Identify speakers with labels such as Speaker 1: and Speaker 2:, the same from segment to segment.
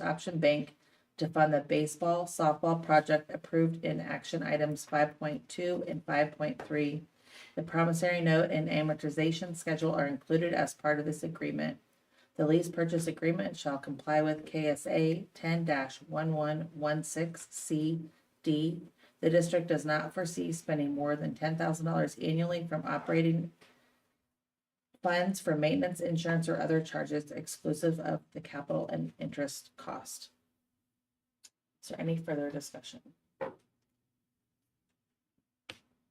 Speaker 1: Option Bank to fund the baseball softball project approved in action items five point two and five point three. The promissory note and amortization schedule are included as part of this agreement. The lease purchase agreement shall comply with KSA ten one one one six C D. The district does not foresee spending more than ten thousand dollars annually from operating funds for maintenance, insurance, or other charges exclusive of the capital and interest cost. Is there any further discussion?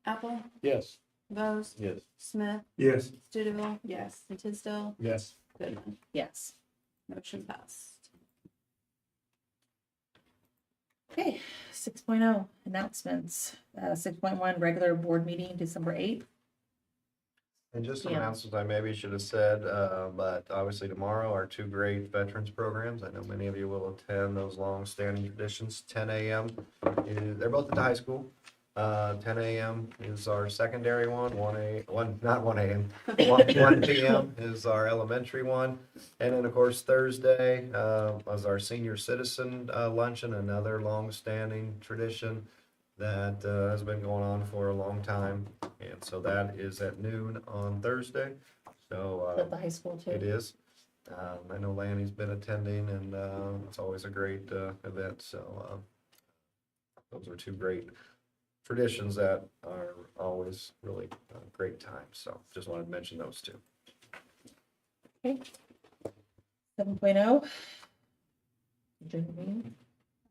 Speaker 2: Apple,
Speaker 3: Yes.
Speaker 2: Bose,
Speaker 3: Yes.
Speaker 2: Smith,
Speaker 4: Yes.
Speaker 2: Studeville. Yes. And Tisdale,
Speaker 3: Yes.
Speaker 2: Goodman.
Speaker 1: Yes.
Speaker 2: Motion passed.
Speaker 1: Okay, six oh, announcements. Uh, six point one, regular board meeting, December eighth.
Speaker 5: And just some
Speaker 1: Yeah.
Speaker 5: announcements I maybe should have said, uh, but obviously tomorrow are two great veterans programs. I know many of you will attend those long-standing traditions. Ten AM, is- they're both at the high school. Uh, ten AM is our secondary one, one A, one, not one AM, one one PM is our elementary one. And then, of course, Thursday, uh, is our senior citizen uh, luncheon, another long-standing tradition that, uh, has been going on for a long time. And so that is at noon on Thursday.
Speaker 1: At
Speaker 5: So
Speaker 1: the high school
Speaker 5: uh, it
Speaker 1: too.
Speaker 5: is. Um, I know Lanny's been attending and uh, it's always a great uh, event. So uh, those are two great traditions that are always really uh, great times. So just wanted to mention those two.
Speaker 1: Seven point oh. Adjourn the meeting.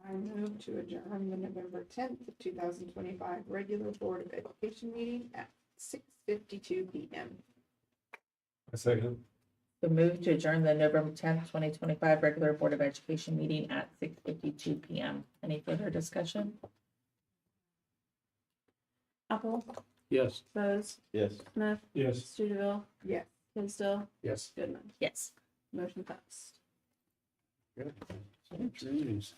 Speaker 6: I move to adjourn the November tenth, two thousand twenty-five regular Board of Education meeting at six fifty-two P M.
Speaker 3: I second.
Speaker 1: We move to adjourn the November tenth, twenty twenty-five regular Board of Education meeting at six fifty-two P M. Any further discussion?
Speaker 2: Apple,
Speaker 3: Yes.
Speaker 2: Bose,
Speaker 3: Yes.
Speaker 2: Smith,
Speaker 3: Yes.
Speaker 2: Studeville.
Speaker 6: Yes.
Speaker 2: Tisdale,
Speaker 3: Yes.
Speaker 2: Goodman.
Speaker 1: Yes.
Speaker 2: Motion passed.
Speaker 3: Jeez.